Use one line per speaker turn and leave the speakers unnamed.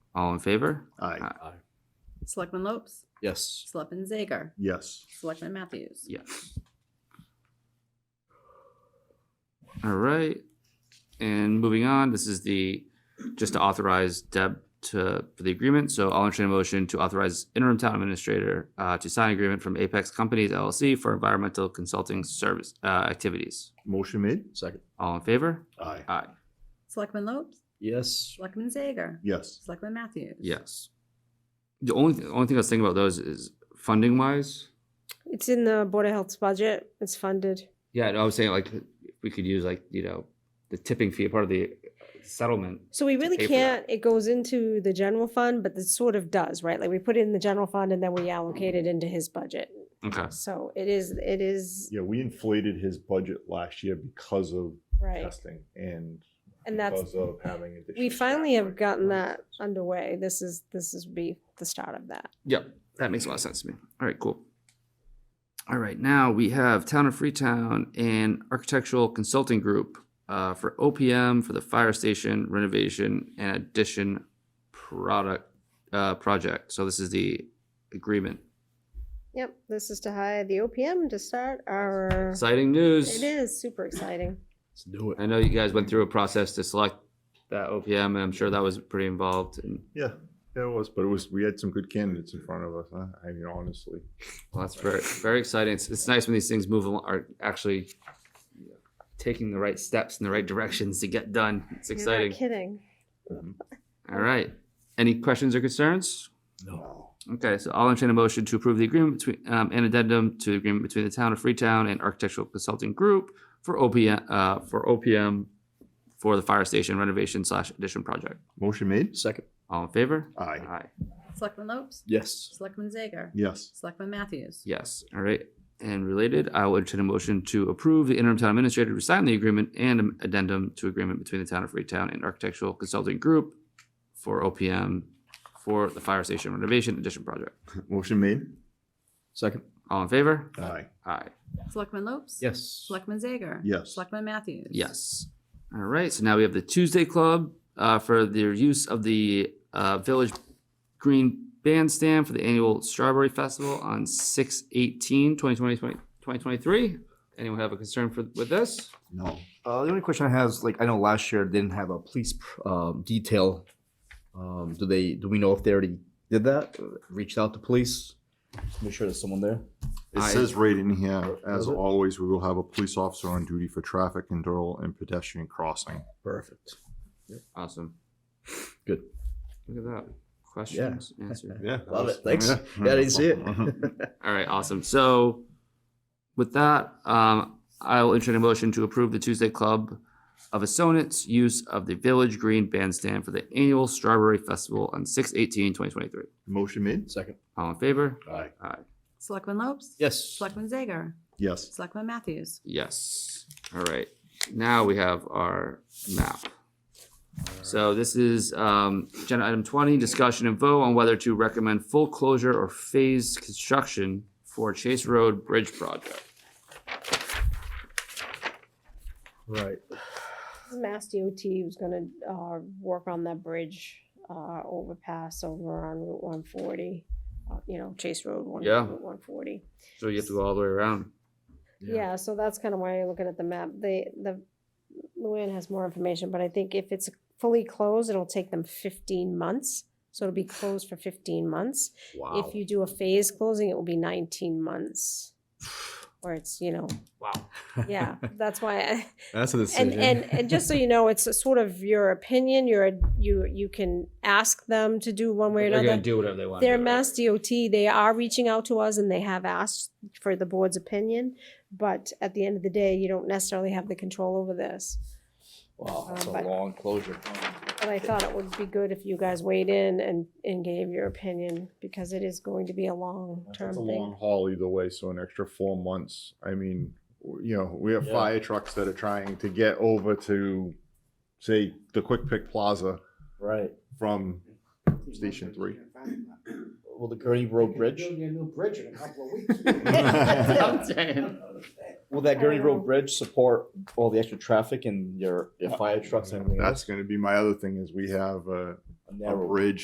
All in favor?
Aye.
Aye.
Selectman Lopes,
Yes.
Selectman Zager,
Yes.
Selectman Matthews.
Yes. All right, and moving on, this is the, just to authorize Deb to, for the agreement, so I'll entertain a motion to authorize interim town administrator uh, to sign agreement from Apex Companies LLC for environmental consulting service, uh, activities.
Motion made.
Second.
All in favor?
Aye.
Aye.
Selectman Lopes,
Yes.
Selectman Zager,
Yes.
Selectman Matthews.
Yes. The only, the only thing I was thinking about those is funding wise.
It's in the Board of Health's budget. It's funded.
Yeah, I was saying like, we could use like, you know, the tipping fee, part of the settlement.
So we really
pay for that.
can't, it goes into the general fund, but it sort of does, right? Like we put it in the general fund and then we allocate it into his budget.
Okay.
So it is, it is,
Yeah, we inflated his budget last year because of
right.
testing and
And that's,
because of having additional.
we
staff,
finally have
right?
gotten that underway. This is, this is be the start of that.
Yep, that makes a lot of sense to me. All right, cool. All right, now we have Town of Freetown and Architectural Consulting Group uh, for OPM for the fire station renovation and addition product uh, project. So this is the agreement.
Yep, this is to hire the OPM to start our,
Exciting news.
it is super exciting.
Let's do
I know you guys went through a process to select that OPM, and I'm sure that was pretty involved. And
Yeah, yeah, it was, but it was, we had some good candidates in front of us, huh? I mean, honestly.
well, that's very very exciting. It's, it's nice when these things move along, are actually taking the right steps in the right directions to get done. It's
You're not
exciting.
Kidding.
All right. Any questions or concerns?
No.
Okay, so I'll entertain a motion to approve the agreement between, um, an addendum to the agreement between the town of Freetown and Architectural Consulting Group for OPM, uh, for OPM for the fire station renovation slash addition project.
Motion made.
Second.
All in favor?
Aye.
Selectman Lopes,
Yes.
Selectman Zager,
Yes.
Selectman Matthews.
Yes, all right. And related, I will entertain a motion to approve the interim town administrator to sign the agreement and an addendum to agreement between the town of Freetown and Architectural Consulting Group for OPM for the fire station renovation addition project.
Motion made.
Second.
All in favor?
Aye.
Aye.
Selectman Lopes.
Yes.
Selectman Zager.
Yes.
Selectman Matthews.
Yes. All right. So now we have the Tuesday Club uh, for their use of the uh, Village Green Bandstand for the annual Strawberry Festival on 6 18, 2020, 2023. Anyone have a concern for, with this?
No.
Uh, the only question I have is like I know last year they didn't have a police pr- um, detail. Um, do they? Do we know if they already did that? Uh, Reached out to police. Make sure there's someone there.
It
Aye.
says right in here, as
Does it?
always, we will have a police officer on duty for traffic control and pedestrian crossing.
Perfect.
Awesome.
Good.
Look at that. Questions answered.
Yeah.
Love it. Thanks. Yeah,
Hmm.
I didn't see it.
Uh-huh.
All right. Awesome. So with that, um, I will entertain a motion to approve the Tuesday Club of Assonance use of the Village Green Bandstand for the annual Strawberry Festival on 6 18, 2023.
Motion made.
Second.
All in favor?
Aye.
Selectman Lopes.
Yes.
Selectman Zager,
Yes.
Selectman Matthews.
Yes. All right. Now we have our map. So this is um, agenda item twenty, discussion and vote on whether to recommend full closure or phased construction for Chase Road Bridge Project.
Right.
This is Mass DOT was gonna, uh, work on that bridge, uh, overpass over on Route one forty. uh, You know, Chase Road, one,
Yeah.
Route one forty.
So you have to go all the way around.
Yeah.
Yeah, so that's kind of why you're looking at the map. They, the, Luann has more information, but I think if it's fully closed, it'll take them fifteen months. So it'll be closed for fifteen months. If you do a phase closing, it will be nineteen months. Or it's, you know,
Wow.
yeah, that's why I,
That's a
and and and just so you know, it's a sort of your opinion. You're you you can ask them to do one way or
They're gonna
another.
do whatever they want. to
They're
do, right?
Mass DOT. They are reaching out to us, and they have asked for the board's opinion. But at the end of the day, you don't necessarily have the control over this.
Wow, that's a
Um, but-
long closure.
But I thought it would be good if you guys weighed in and and gave your opinion because it is going to be a long term
It's a long
thing.
haul either way, so an extra four months. I mean, w- you know, we have
Yeah.
fire trucks that are trying to get over to, say, the Quick Pick Plaza
Right.
from Station Three.
Well, the Gurney Road Bridge.
Building a new bridge in a couple of weeks.
I'm saying.
Will that Gurney
Oh.
Road Bridge support all the extra traffic and your, your fire trucks and everything?
That's going to be my other thing is we have a,
else?
a
Narrow.
bridge